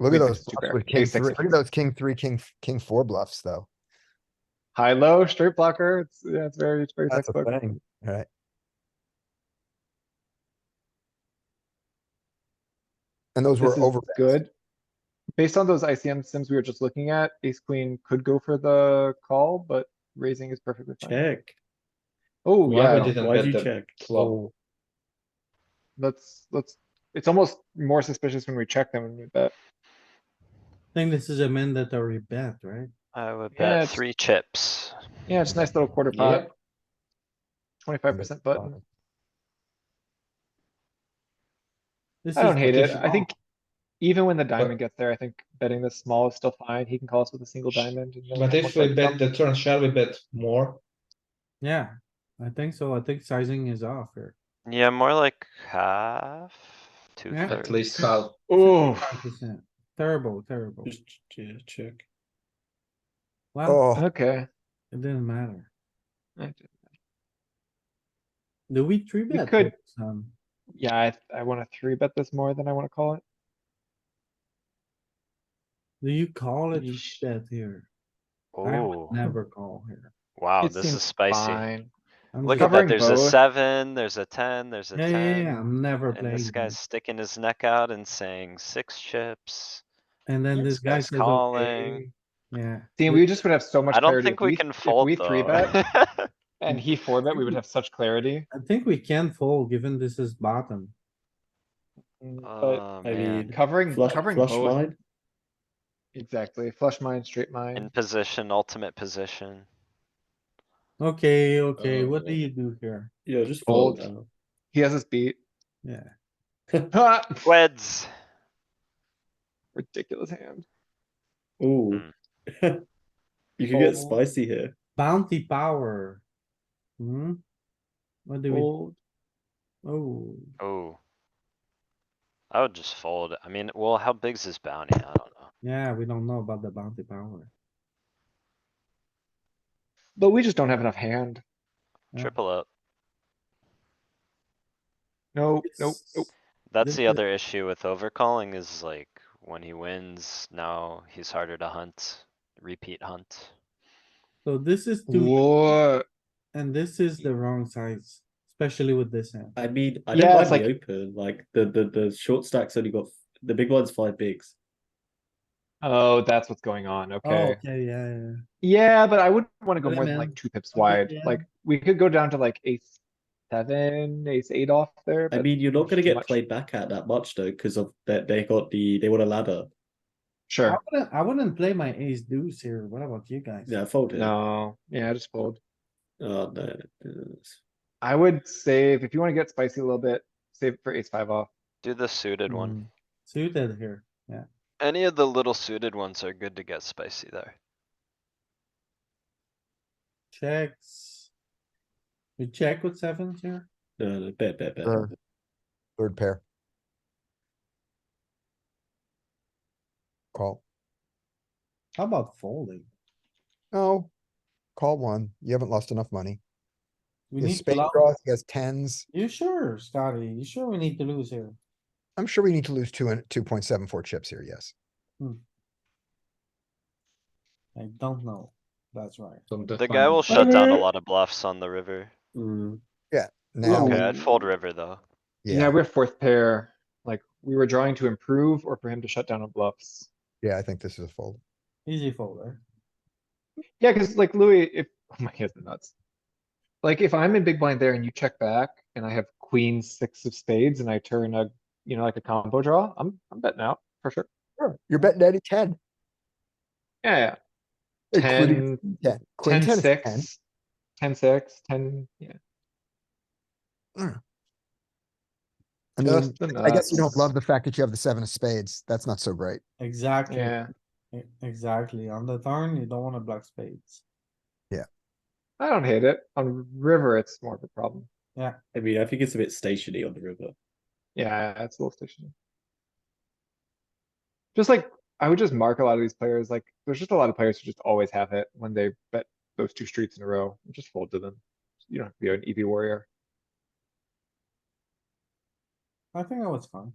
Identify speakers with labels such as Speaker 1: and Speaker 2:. Speaker 1: Look at
Speaker 2: Ace
Speaker 1: those
Speaker 2: six, two
Speaker 1: bluffs
Speaker 2: pair.
Speaker 1: with king
Speaker 2: Ace six,
Speaker 1: three, look at
Speaker 2: six.
Speaker 1: those king three, king, f- king four bluffs though.
Speaker 2: High, low, straight blocker. It's, yeah, it's very, it's very
Speaker 1: That's the
Speaker 2: textbook.
Speaker 1: thing, right? And those were
Speaker 2: This is
Speaker 1: over.
Speaker 2: good. Based on those ICM sims we were just looking at, ace queen could go for the call, but raising is perfectly fine.
Speaker 3: Check.
Speaker 2: Oh,
Speaker 4: Why
Speaker 2: yeah,
Speaker 4: would didn't
Speaker 3: Why'd
Speaker 4: bet
Speaker 3: you
Speaker 4: the
Speaker 3: check?
Speaker 4: flop?
Speaker 2: let's, let's, it's almost more suspicious when we check them and we bet.
Speaker 3: I think this is a man that already bet, right?
Speaker 5: I would
Speaker 2: Yeah,
Speaker 5: bet
Speaker 2: it's-
Speaker 5: three chips.
Speaker 2: Yeah, it's a nice little quarter pot,
Speaker 4: Yep,
Speaker 2: twenty-five percent button.
Speaker 3: This
Speaker 2: I don't
Speaker 3: is
Speaker 2: hate it.
Speaker 3: fishy.
Speaker 2: I think even when the diamond gets there, I think betting this small is still fine. He can call us with a single diamond. and then
Speaker 4: but
Speaker 2: have
Speaker 4: if
Speaker 2: more
Speaker 4: we bet
Speaker 2: button.
Speaker 4: the turn, shall we bet more?
Speaker 3: Yeah, I think so. I think sizing is off here.
Speaker 5: Yeah, more like half, two
Speaker 3: Yeah. At
Speaker 4: At
Speaker 5: thirds.
Speaker 4: least half.
Speaker 2: Ooh,
Speaker 3: 5%. Terrible, terrible.
Speaker 4: Just, yeah, check.
Speaker 3: Well,
Speaker 1: Oh,
Speaker 2: okay.
Speaker 3: it didn't matter.
Speaker 2: I-
Speaker 3: Do we three bet?
Speaker 2: could-
Speaker 3: this, Um,
Speaker 2: Yeah, I, I wanna three bet this more than I wanna call it.
Speaker 3: do you call it
Speaker 2: Yeesh.
Speaker 3: bet here? I
Speaker 5: Ooh,
Speaker 3: would never call here.
Speaker 5: wow,
Speaker 2: It
Speaker 5: Oh, this
Speaker 2: seems
Speaker 5: is spicy.
Speaker 2: Fine.
Speaker 3: I'm
Speaker 5: Look
Speaker 3: just-
Speaker 5: at that,
Speaker 2: Covering
Speaker 5: there's a
Speaker 2: both.
Speaker 5: seven, there's a ten, there's a
Speaker 3: Yeah, yeah, yeah,
Speaker 5: ten.
Speaker 3: I'm never
Speaker 5: And
Speaker 3: playing.
Speaker 5: this
Speaker 3: here.
Speaker 5: guy's sticking his neck out and saying six chips.
Speaker 3: And then this guy
Speaker 5: guy's
Speaker 3: says,
Speaker 5: calling.
Speaker 3: okay, yeah.
Speaker 2: See, we just would have so much
Speaker 5: I don't
Speaker 2: clarity.
Speaker 5: think
Speaker 2: if
Speaker 5: we can
Speaker 2: if
Speaker 5: fold
Speaker 2: we three bet
Speaker 5: though.
Speaker 2: And he four bet, we would have such clarity.
Speaker 3: I think we can fold given this is bottom.
Speaker 2: Mm, But
Speaker 5: Oh,
Speaker 6: I
Speaker 5: man.
Speaker 6: mean,
Speaker 2: covering,
Speaker 6: Flush,
Speaker 2: covering
Speaker 6: flush
Speaker 2: both,
Speaker 6: wide.
Speaker 2: exactly. Flush mine, straight
Speaker 5: In
Speaker 2: mine.
Speaker 5: position, ultimate position.
Speaker 3: Okay, okay,
Speaker 6: Uh,
Speaker 3: what do you do here?
Speaker 6: Yeah, just
Speaker 2: Fold.
Speaker 6: fold. now.
Speaker 2: He has us beat.
Speaker 3: Yeah.
Speaker 2: Ha!
Speaker 5: Weds.
Speaker 2: Ridiculous hand.
Speaker 6: Ooh.
Speaker 5: Hmm.
Speaker 6: You can get
Speaker 2: Fold.
Speaker 6: spicy here.
Speaker 3: Bounty power. Hmm? What do we,
Speaker 2: Fold.
Speaker 3: oh,
Speaker 5: Oh. I would just fold. I mean, well, how big's his bounty? I don't know.
Speaker 3: yeah, we don't know about the bounty power.
Speaker 2: But we just don't have enough hand.
Speaker 3: Yeah.
Speaker 5: Triple up.
Speaker 2: No, nope, nope.
Speaker 5: That's
Speaker 3: This
Speaker 5: the
Speaker 3: is-
Speaker 5: other issue with overcalling is like when he wins, now he's harder to hunt, repeat hunt.
Speaker 3: So this is two,
Speaker 2: Whoa.
Speaker 3: and this is the wrong size, especially with this hand.
Speaker 6: I mean, I
Speaker 2: Yeah,
Speaker 6: don't
Speaker 2: it's
Speaker 6: mind the open, like the, the, the short stack's only got, the big one's five bigs.
Speaker 2: Oh, that's what's going on.
Speaker 3: Oh,
Speaker 2: Okay.
Speaker 3: okay, yeah, yeah.
Speaker 2: Yeah, but I wouldn't wanna go
Speaker 3: Really,
Speaker 2: more than
Speaker 3: man?
Speaker 2: like two pips
Speaker 3: Okay,
Speaker 2: wide.
Speaker 3: yeah.
Speaker 2: Like, we could go down to like ace seven, ace eight off there,
Speaker 6: I
Speaker 2: but
Speaker 6: mean, you're not gonna
Speaker 2: too
Speaker 6: get
Speaker 2: much.
Speaker 6: played back at that much though, because of that they got the, they want a ladder.
Speaker 3: I
Speaker 2: sure.
Speaker 3: wouldn't, I wouldn't play my ace deuce here. What about you guys?
Speaker 6: Yeah, fold it.
Speaker 2: No, yeah, just fold.
Speaker 6: Oh, no. it's-
Speaker 2: I would save, if you wanna get spicy a little bit, save it for ace five off.
Speaker 5: Do the suited one.
Speaker 3: Hmm. Suited here, yeah.
Speaker 5: Any of the little suited ones are good to get spicy there.
Speaker 3: Checks. We check with sevens here?
Speaker 6: No, no, bet, bet, bet.
Speaker 1: Sure. third pair. Call.
Speaker 3: How about folding?
Speaker 1: No. Call one. You haven't lost enough money.
Speaker 3: We
Speaker 1: His
Speaker 3: need to
Speaker 1: spade
Speaker 3: love-
Speaker 1: draws, he has tens.
Speaker 3: You sure, Scotty? You sure we need to lose here?
Speaker 1: I'm sure we need to lose two and two point seven four chips here, yes.
Speaker 3: I don't know. That's right.
Speaker 5: The guy will shut down a lot of bluffs on the river.
Speaker 6: Mm,
Speaker 1: Now,
Speaker 5: Okay, I'd fold river though.
Speaker 2: Yeah,
Speaker 1: yeah,
Speaker 2: we're fourth pair, like, we were drawing to improve or for him to shut down on bluffs.
Speaker 1: yeah, I think this is a fold.
Speaker 3: Easy folder.
Speaker 2: Yeah, cuz like Louis, if, oh my hands are nuts. Like if I'm in big blind there and you check back and I have queen six of spades and I turn a, you know, like a combo draw, I'm, I'm betting out for sure.
Speaker 1: Sure, You're betting Eddie ten.
Speaker 2: Yeah, yeah.
Speaker 1: including
Speaker 2: Ten,
Speaker 1: Ten. Queen
Speaker 2: ten,
Speaker 1: ten is ten.
Speaker 2: six, ten, six, ten, yeah.
Speaker 1: I mean,
Speaker 2: Just the
Speaker 1: I guess you don't
Speaker 2: nuts.
Speaker 1: love the fact that you have the seven of spades. That's not so great.
Speaker 3: Exactly.
Speaker 2: Yeah,
Speaker 3: E- Exactly. On the turn, you don't wanna black spades.
Speaker 2: I don't hate it. On river, it's more of a problem.
Speaker 6: I mean, I think it's a bit stationary on the river.
Speaker 2: Yeah, it's a little stationary. Just like, I would just mark a lot of these players, like, there's just a lot of players who just always have it when they bet those two streets in a row, just fold to E them. You don't have to be an EV warrior.
Speaker 3: I think that was fun.